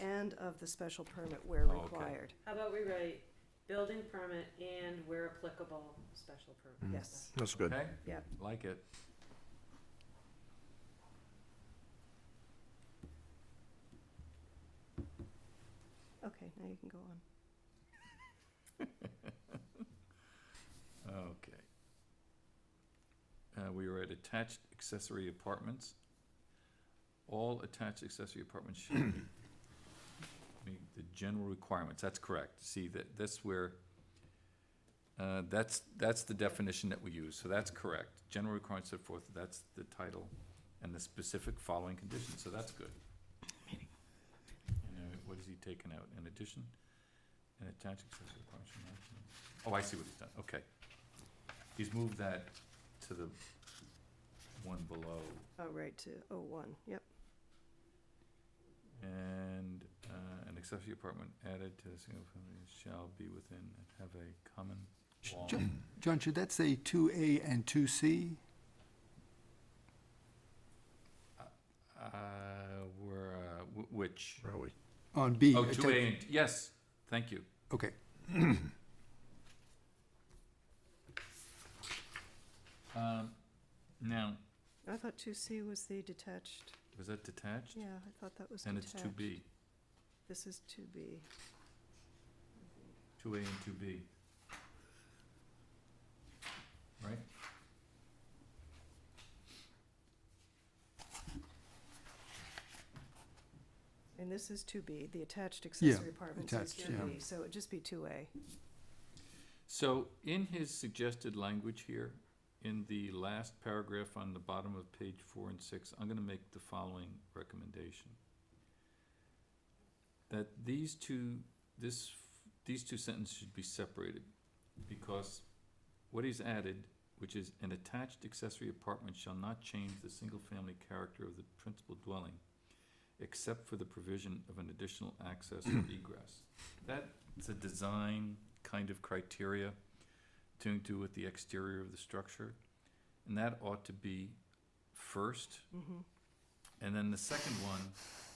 and of the special permit where Oh, okay. required. How about we write building permit and where applicable, special Mm. permit? Yes, That's good. Okay? Yep. Like it. okay, now you can go on. Okay. Uh, we are at attached accessory apartments. All attached accessory apartments should meet the general requirements, that's correct, see, that, that's where, uh, that's, that's the definition that we use, so that's correct. General requirements set forth, that's the title, and the specific following conditions, so that's good. And, uh, what is he taking out, in addition, an attached accessory apartment should not- Oh, I see what he's done, okay. He's moved that to the one below, Oh, right, to oh one, yep. and, uh, an accessory apartment added to the single family shall be within, and have a common Sh- wall. ju- John, should that say two A and two C? Uh, where, uh, wh- which? Where are we? On B? Oh, uh, two ta- A and, yes, thank you. Okay, Um, now, I thought two C was the detached, was that detached? yeah, I thought that was And detached. it's two B, This is two B. two A and two B. Right? And this is two B, the attached accessory apartments is attached, two yeah. B, so it'd just be two A. So in his suggested language here, in the last paragraph on the bottom of page four and six, I'm gonna make the following recommendation. That these two, this, these two sentences should be separated, because what he's added, which is an attached accessory apartment shall not change the single-family character of the principal dwelling, except for the provision of an additional access or egress. That's a design kind of criteria to do with the exterior of the structure. And that ought to be first. Mm-hmm. And then the second one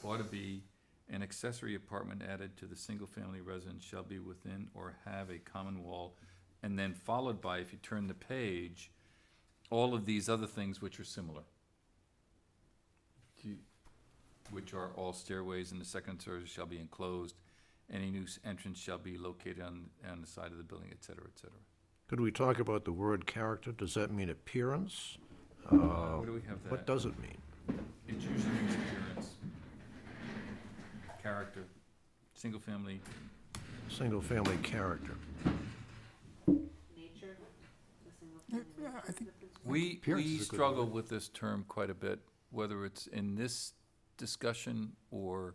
ought to be an accessory apartment added to the single-family residence shall be within or have a common wall. And then followed by, if you turn the page, all of these other things which are similar. Do you- Which are all stairways in the second and third shall be enclosed. Any new s- entrance shall be located on, on the side of the building, et cetera, et cetera. Could we talk about the word character? Does that mean appearance? Uh, What do we have What that? does it mean? It usually means appearance. Character, single family, Single-family character. Nature, the single Yeah, family. yeah, I think- We, Appearance we is a good struggle with this term quite a bit, whether it's in this discussion or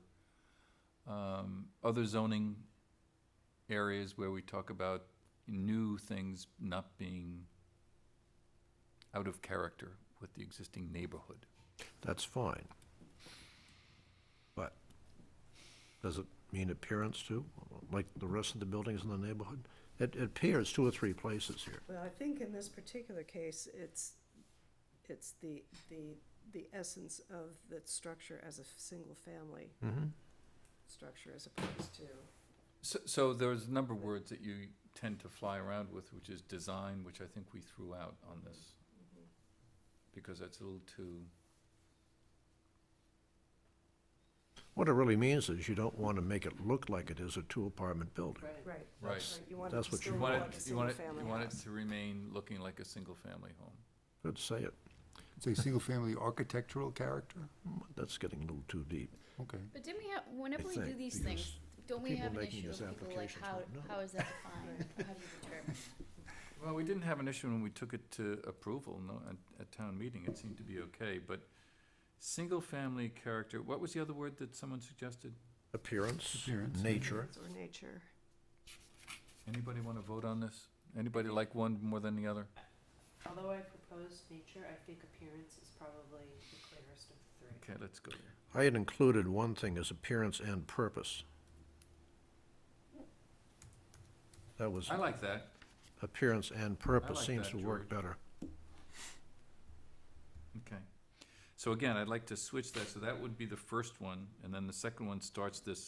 um, other zoning areas where we talk about new things not being out of character with the existing neighborhood. That's fine. But does it mean appearance too, like the rest of the buildings in the neighborhood? It it appears two or three places here. Well, I think in this particular case, it's, it's the, the, the essence of the structure as a single-family Mm-hmm. structure as opposed to, So, so there's a number of words that you tend to fly around with, which is design, which I think we threw out on this, because that's a little too, What it really means is you don't want to make it look like it is a two-apartment building. Right. right. right. right, You want it That's to what you still You look want like it, a you want it, single-family you want it house. to remain looking like a single-family home. Could say it. say single-family architectural character? That's getting a little too deep. Okay. But didn't we have, whenever we do think, these because things, don't we people have an making issue these of people like, applications how, won't know. how is that defined? or How do you determine? Well, we didn't have an issue when we took it to approval, no, at, at town meeting, it seemed to be okay, but single-family character, what was the other word that someone suggested? Appearance, Appearance. nature. Or nature. Anybody wanna vote on this? Anybody like one more than the other? Although I proposed nature, I think appearance is probably the clearest of the three. Okay, let's go there. I had included one thing as appearance and purpose. That was, I like that, appearance and purpose like seems that, to work better. okay. So again, I'd like to switch that, so that would be the first one, and then the second one starts this